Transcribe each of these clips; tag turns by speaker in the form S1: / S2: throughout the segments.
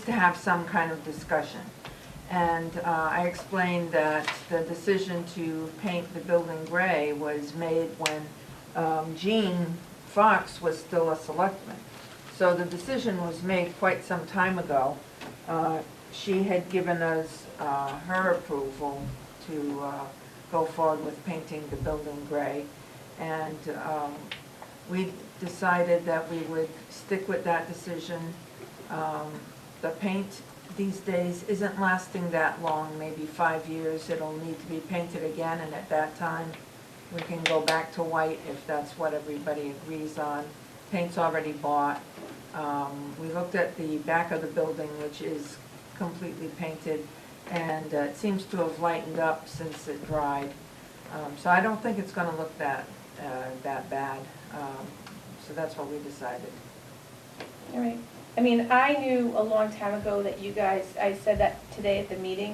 S1: to have some kind of discussion. And uh, I explained that the decision to paint the building gray was made when um, Gene Fox was still a selectman. So the decision was made quite some time ago. Uh, She had given us uh, her approval to uh, go forward with painting the building gray. And um, we decided that we would stick with that decision. Um, The paint these days isn't lasting that long, maybe five years. It'll need to be painted again, and at that time, we can go back to white if that's what everybody agrees on. Paint's already bought. Um, We looked at the back of the building, which is completely painted, and uh, it seems to have lightened up since it dried. Um, So I don't think it's gonna look that, uh, that bad. Um, So that's what we decided.
S2: All right. I mean, I knew a long time ago that you guys, I said that today at the meeting,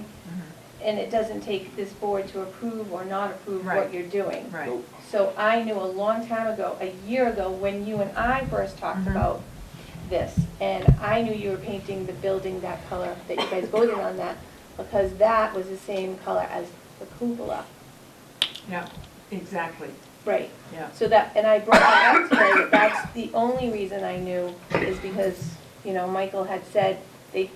S2: and it doesn't take this board to approve or not approve
S1: Right.
S2: what you're doing.
S1: Right,
S2: So I knew a long time ago, a year ago, when you and I first talked
S1: Mhm.
S2: about this, and I knew you were painting the building that color, that you guys voted on that, because that was the same color as the cupola.
S1: yeah, exactly,
S2: Right.
S1: yeah.
S2: So that, and I brought that up today, that that's the only reason I knew is because, you know, Michael had said they,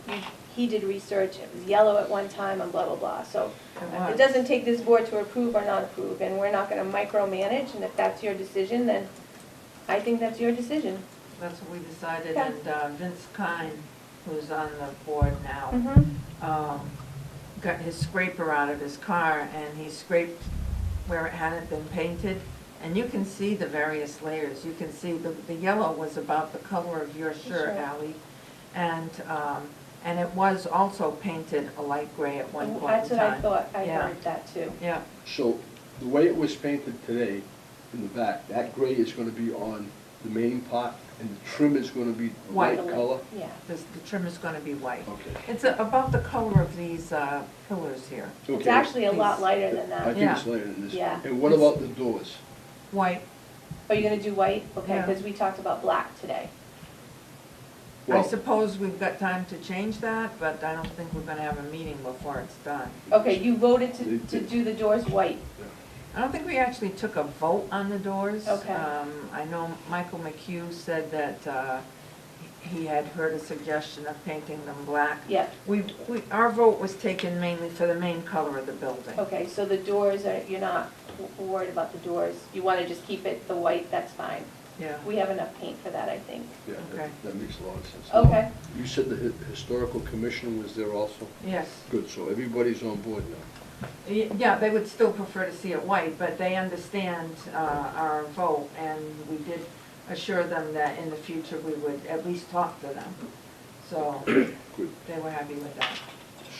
S2: he did research, it was yellow at one time and blah, blah, blah. So it
S1: was.
S2: doesn't take this board to approve or not approve, and we're not gonna micromanage, and if that's your decision, then I think that's your decision.
S1: That's what we decided,
S2: Yeah.
S1: and uh, Vince Kine, who's on the board now,
S2: Mm.
S1: um, got his scraper out of his car, and he scraped where it hadn't been painted, and you can see the various layers. You can see the, the yellow was about the color of your shirt,
S2: Sure.
S1: Ally, and, um, and it was also painted a light gray at one point
S2: That's
S1: in
S2: what I
S1: time.
S2: thought, I
S1: Yeah.
S2: heard that too.
S1: Yeah,
S3: So the way it was painted today in the back, that gray is gonna be on the main part and the trim is gonna be
S1: White.
S3: white color?
S2: Yeah.
S1: this- the trim is gonna be white.
S3: Okay.
S1: It's a- about the color of these uh, pillars here,
S2: It's
S3: Okay.
S2: actually a lot
S1: Please.
S2: lighter than
S3: I
S2: that.
S3: think it's later than this.
S2: Yeah.
S3: And what about the doors?
S1: white.
S2: Are you gonna do white? Okay,
S1: Yeah.
S2: because we talked about black today.
S1: I
S3: Well-
S1: suppose we've got time to change that, but I don't think we're gonna have a meeting before it's done.
S2: Okay, you voted to, to do the doors white.
S1: I don't think we actually took a vote on the doors.
S2: Okay.
S1: Um, I know Michael McHugh said that, uh, he had heard a suggestion of painting them black.
S2: Yep.
S1: We, we, our vote was taken mainly for the main color of the building.
S2: Okay, so the doors are, you're not w- worried about the doors? You want to just keep it the white, that's fine.
S1: Yeah,
S2: We have enough paint for that, I think.
S3: Yeah,
S1: Okay.
S3: that- that makes a lot of sense.
S2: Okay,
S3: You said the hi- historical commission was there also?
S1: yes.
S3: Good, so everybody's on board now.
S1: Y- Yeah, they would still prefer to see it white, but they understand uh, our vote, and we did assure them that in the future, we would at least talk to them. So
S3: Good.
S1: they were happy with that.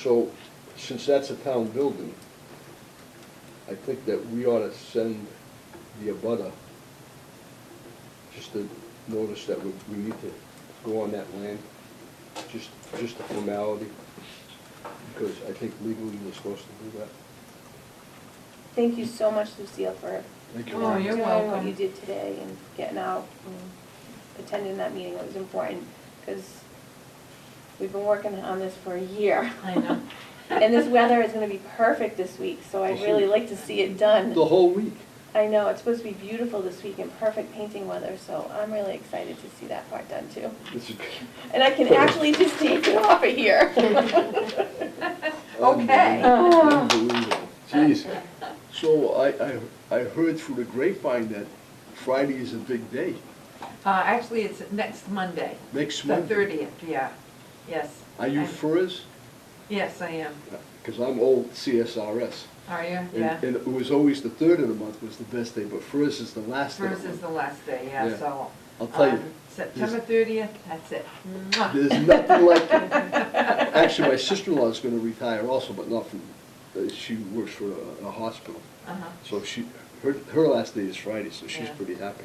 S3: So, since that's a town building, I think that we ought to send the abutter just to notice that we, we need to go on that land, just, just a formality, because I think legally we're supposed to do that.
S2: thank you so much, Lucille, for
S3: Thank you.
S1: Oh, you're
S2: doing what
S1: welcome.
S2: you did today and getting out and attending that meeting. It was important, because we've been working on this for a year.
S1: I know.
S2: And this weather is going to be perfect this week, so I'd really like to see it done.
S3: The whole week.
S2: I know, it's supposed to be beautiful this week and perfect painting weather, so I'm really excited to see that part done too.
S3: This is-
S2: And I can actually just take it off of here.
S1: Okay.
S3: Um, Unbelievable. Jeez. So I, I, I heard through the grapevine that Friday is a big day,
S1: Uh, Actually, it's next Monday,
S3: next
S1: the
S3: month.
S1: 30th, yeah, yes.
S3: Are you
S1: I'm-
S3: FERS?
S1: Yes, I am.
S3: Because I'm old CSRS.
S1: Are you?
S3: and-
S1: Yeah.
S3: And it was always the third of the month was the best day, but FERS is the last day. of
S1: First
S3: the
S1: is the
S3: month.
S1: last day, yeah,
S3: Yeah.
S1: so.
S3: I'll tell you,
S1: um, September 30th, that's it. Mwah.
S3: There's nothing like it. Actually, my sister-in-law is going to retire also, but not from, uh, she works for a- a hospital.
S1: Uh-huh.
S3: So she, her, her last day is Friday, so she's
S1: Yeah.
S3: pretty happy.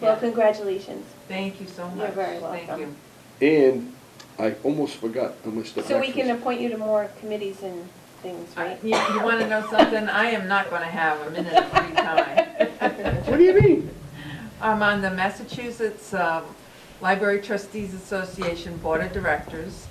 S2: Well, congratulations.
S1: Thank you so much.
S2: You're very
S1: Thank you.
S2: welcome.
S3: And I almost forgot, I must have.
S2: So we
S3: actually-
S2: can appoint you to more committees and things,
S1: I-
S2: right?
S1: You, you wanna know something? I am not gonna have a minute of free time.
S3: What do you mean?
S1: I'm uh, on the Massachusetts um, Library Trustees Association Board of Directors,